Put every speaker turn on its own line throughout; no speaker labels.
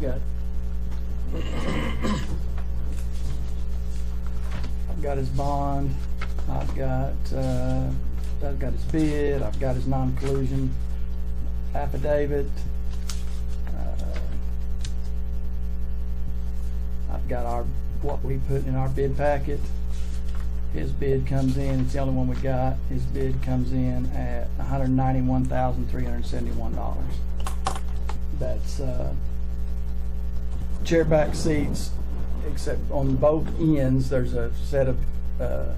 got. I've got his bond, I've got, uh, I've got his bid, I've got his non-collusion affidavit. uh, I've got our, what we put in our bid packet. His bid comes in, it's the only one we got, his bid comes in at hundred ninety-one thousand, three hundred seventy-one dollars. That's, uh, chair back seats, except on both ends, there's a set of, uh,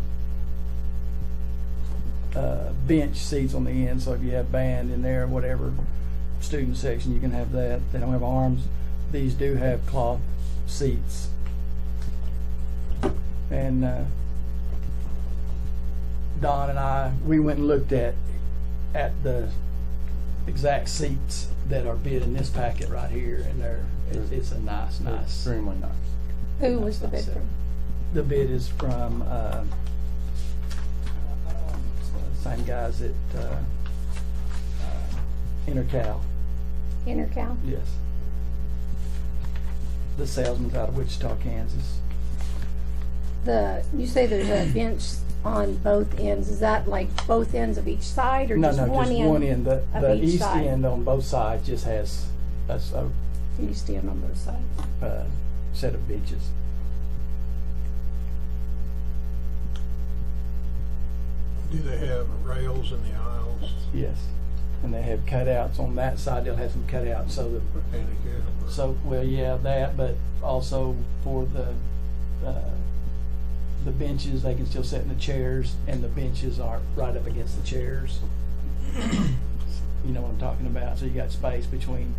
uh, bench seats on the end, so if you have band in there, whatever student section, you can have that. They don't have arms. These do have cloth seats. And, uh, Don and I, we went and looked at, at the exact seats that are bid in this packet right here, and they're, it's, it's a nice, nice.
Extremely nice.
Who was the bid
That's
from?
The bid is from, uh, same guys at, uh, uh, Intercal,
Intercal?
yes. The salesman's out of Wichita, Kansas.
The, you say there's a bench on both ends. Is that like both ends of each side or
No,
just
no,
one
just
end?
one end, the,
of
the
each
east
side.
end on both sides just has a, s- a,
You stand on both sides.
uh, set of benches.
Do they have rails in the aisles,
Yes. And they have cutouts on that side, they'll have some cutouts so that
for handicap? or-
So, well, yeah, that, but also for the, uh, the benches, they can still sit in the chairs, and the benches aren't right up against the chairs. You know what I'm talking about, so you got space between,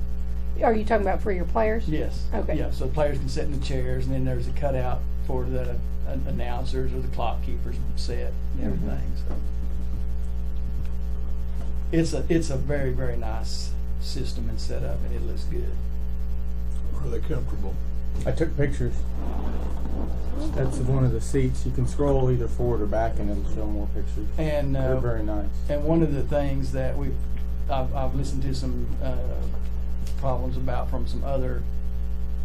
Are you talking about for your players?
yes.
Okay.
Yeah, so players can sit in the chairs, and then there's a cutout for the an- announcers or the clock keepers set and
Mm-hmm.
everything, so. It's a, it's a very, very nice system and setup, and it looks good.
Are they comfortable?
I took pictures. That's one of the seats. You can scroll either forward or back and it'll show more pictures.
And, uh.
They're very nice.
And one of the things that we've, I've, I've listened to some, uh, problems about from some other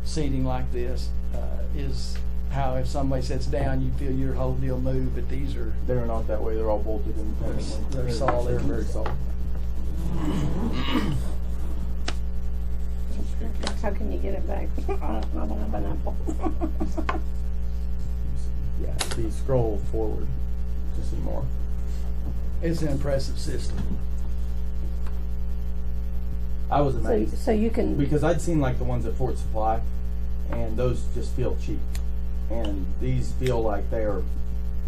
seating like this, uh, is how if somebody sits down, you feel your whole deal move, but these are,
They're not that way. They're all bolted independently.
They're solid.
They're very solid.
How can you get it back? I don't know, I don't have an apple.
Yeah, so you scroll forward to see more.
it's an impressive system.
I was
So,
amazed
so you can,
because I'd seen like the ones at Fort Supply, and those just feel cheap, and these feel like they are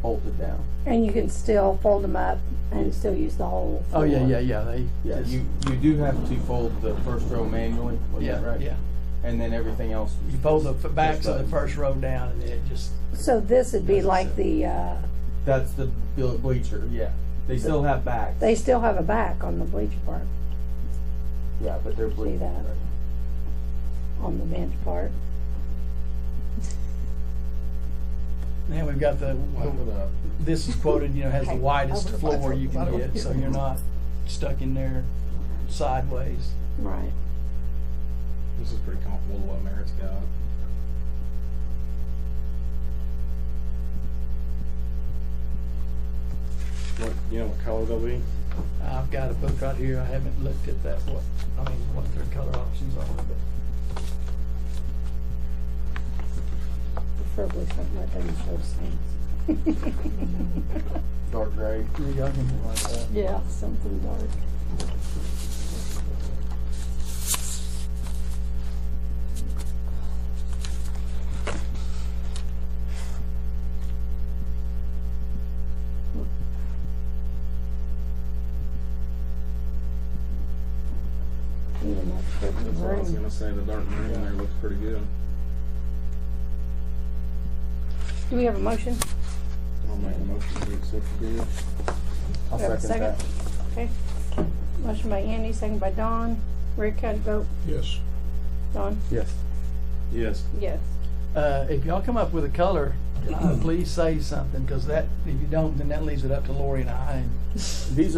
bolted down.
and you can still fold them up and still use the whole.
Oh, yeah,
floor.
yeah, yeah, they.
Yeah, you you do have to fold the first row manually. wasn't that
Yeah,
right?
yeah.
And then everything else.
You pull the f- backs of the
button.
first row down and it just,
So this would be like the, uh,
That's the ble- bleacher. Yeah, they still have backs.
they still have a back on the bleacher part,
yeah, but they're bleacher.
that.
right.
on the bench part.
man, we've got the, this is quoted, you know, has the
Okay.
widest
Over.
floor you can get, so you're not stuck in there sideways.
Right.
This is pretty comparable to what Merritt's got. What, you know what color they'll be?
I've got a book right here, I haven't looked at that, what, I mean, what their color options are, but
Preferably something that doesn't show stains.
Dark gray.
y'all can like that.
Yeah, something dark. Even that
That's
curtain
what I was
room.
gonna say, the dark green there looks pretty good.
Do we have a motion?
I'll make a motion to accept the bid.
I'll
Have a
second,
second?
that.
Okay. Motion by Andy, second by Don. Rick, how'd you vote?
Yes.
Don?
Yes.
Yes,
Yes.
Uh, if y'all come up with a color, uh, please say something, cause that, if you don't, then that leaves it up to Lori and I, and
These